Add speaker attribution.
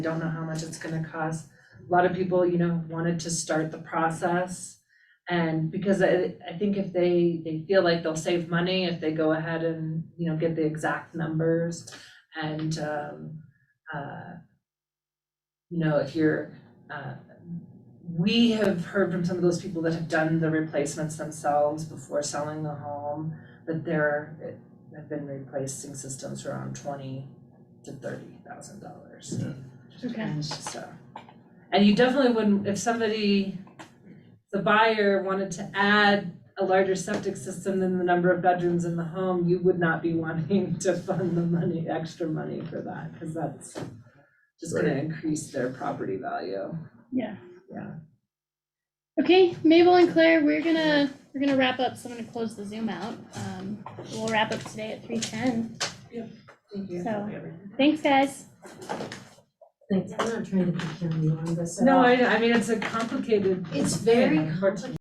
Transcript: Speaker 1: I don't know how much it's gonna cost. A lot of people, you know, wanted to start the process. And because I, I think if they, they feel like they'll save money if they go ahead and, you know, get the exact numbers and, um, uh, you know, if you're, uh, we have heard from some of those people that have done the replacements themselves before selling the home, that there have been replacing systems for around twenty to thirty thousand dollars.
Speaker 2: Okay.
Speaker 1: So, and you definitely wouldn't, if somebody, the buyer wanted to add a larger septic system than the number of bedrooms in the home, you would not be wanting to fund the money, extra money for that, because that's just gonna increase their property value.
Speaker 2: Yeah.
Speaker 1: Yeah.
Speaker 2: Okay, Mabel and Claire, we're gonna, we're gonna wrap up, so I'm gonna close the Zoom out. Um, we'll wrap up today at three ten.
Speaker 1: Thank
Speaker 2: you. So- Thanks, guys.
Speaker 3: Thanks, I'm uh, not trying to be carrying on this at
Speaker 1: No,
Speaker 3: all.
Speaker 1: I, I mean, it's a complicated
Speaker 3: It's very
Speaker 1: Yeah.
Speaker 3: complicated.